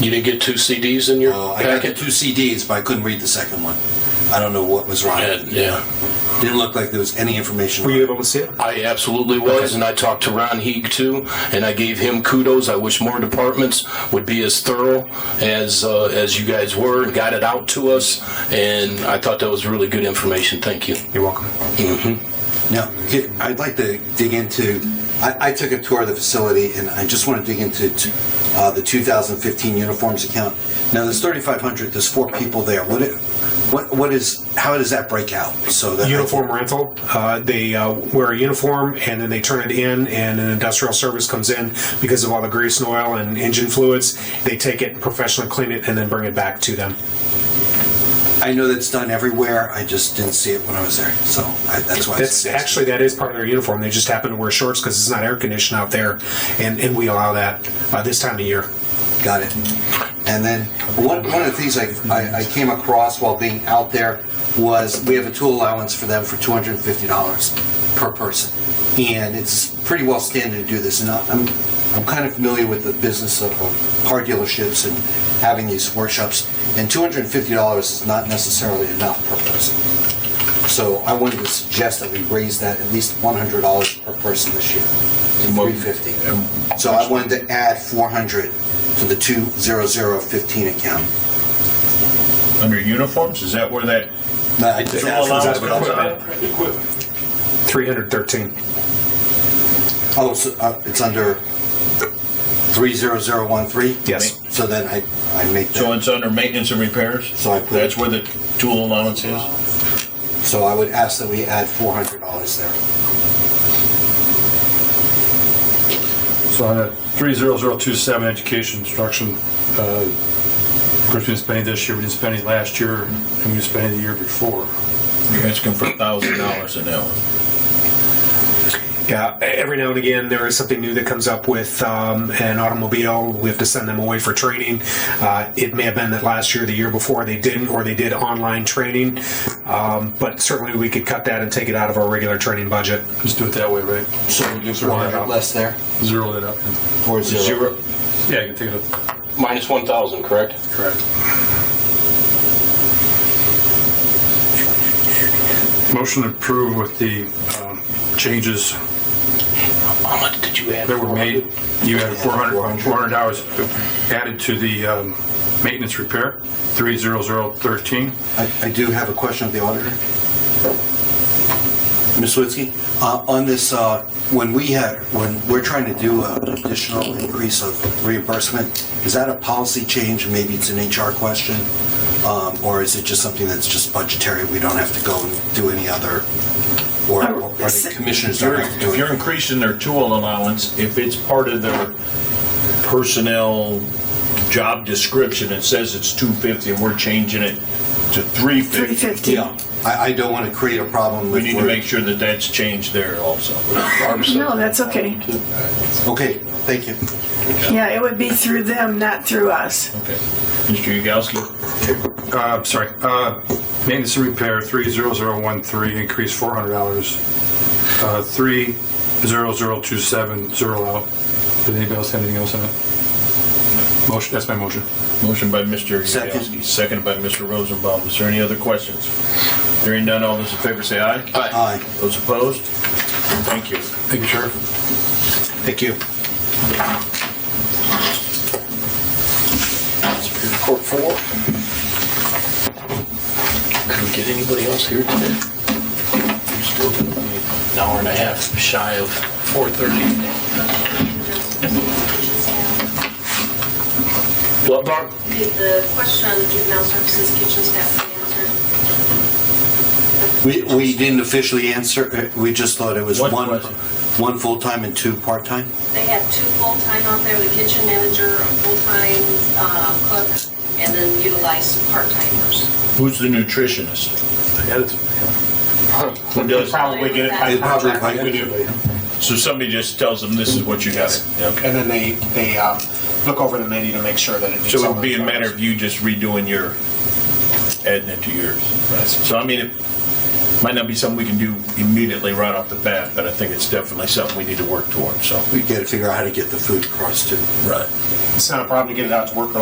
You didn't get two CDs in your Uh, I got the packet? two CDs, but I couldn't read the second one. I don't know what was wrong. And, yeah, Didn't look like there was any information. Were you able to see it? I absolutely was, and I talked to Ron Heeg too, and I gave him kudos. I wish more departments would be as thorough as uh, as you guys were and got it out to us. And I thought that was really good information. Thank you. You're welcome. Mm-hmm. Now, could- I'd like to dig into, I, I took a tour of the facility and I just want to dig into t- uh, the 2015 uniforms account. Now, there's 3,500, there's four people there. What, it- what, what is, how does that break out? So that. Uniform rental, uh, they uh, wear a uniform and then they turn it in and an industrial service comes in because of all the grease and oil and engine fluids. They take it, professionally clean it, and then bring it back to them. I know that's done everywhere. I just didn't see it when I was there. So I, that's why. I That's suggested- actually, that is part of their uniform. They just happen to wear shorts because it's not air conditioned out there and, and we allow that uh, this time of year. Got it. And then one, one of the things I, I, I came across while being out there was we have a tool allowance for them for $250 per person. And it's pretty well standard to do this. And I'm, I'm kind of familiar with the business of of car dealerships and having these workshops. And $250 is not necessarily enough per person. So I wanted to suggest that we raise that at least $100 per person this year to 350. So I wanted to add 400 to the 20015 account. Under uniforms, is that where that? No, I just asked allowance for for that, but- Equipment. Equipment. 313. Oh, so, uh, it's under 30013? Yes. So then I, I make So that, it's under maintenance and repairs? So I put- That's where the tool allowance is? so I would ask that we add $400 there. So uh, on that 30027 education instruction, uh, of course, we didn't spend it this year, we didn't spend it last year, and we didn't spend it the year before. You're asking for thousand dollars an hour. Yeah, e-, every now and again, there is something new that comes up with um, an automobile. We have to send them away for training. Uh, it may have been that last year, the year before, they didn't, or they did online training. Um, but certainly, we could cut that and take it out of our regular training budget. Just do it that way, right? So we do Zero it 400 out. less there? Zero that up. Or zero? Yeah, you can take it up. Minus one thousand, correct? Correct. Motion approved with the um, changes How much did you add? that were made. You had 400, 400 hours added to the um, maintenance repair, 30013. I, I do have a question of the auditor. Ms. Witzke, uh, on this, uh, when we had, when we're trying to do an additional increase of reimbursement, is that a policy change? Maybe it's an HR question? Um, Or is it just something that's just budgetary? We don't have to go and do any other, or or the commissioners If you're- don't have to do If you're it? increasing their tool allowance, if it's part of their personnel job description, it says it's two fifty and we're changing it to three fifty. 350. Yeah, I, I don't want to create a problem We with. need to where- make sure that that's changed there also. No, that's okay. Okay, thank you. Yeah, it would be through them, not through us. Okay. Mr. Yagowski, Uh, I'm sorry, uh, maintenance and repair, 30013, increase $400. Uh, 30027, zero out. Does anybody else have anything else on it? Motion, that's my motion. motion by Mr. Second. Yagowski, seconded by Mr. Rosenbaum. Is there any other questions? Hearing none, all those in favor say aye. Aye. Those opposed? Thank you. Thank you, Sheriff. Thank you. Court four. Could we get anybody else here today? We're still gonna be an hour and a half shy of four thirty. What, Barb? Did the question on juvenile services kitchen staff be answered? We, we didn't officially answer, uh, we just thought it was One one, question. one full-time and two part-time? They had two full-time out there, the kitchen manager, a full-time uh, cook, and then utilized part-timers. Who's the nutritionist? Who does? Probably get it by It probably- So somebody just tells them this is what you got. Okay. And then they, they um, look over the menu to make sure that it's. So it would be a matter of you just redoing your, adding it to yours. So I mean, it might not be something we can do immediately right off the bat, but I think it's definitely something we need to work towards, so. we got to figure out how to get the food across to Right. It's not a problem to get it out to work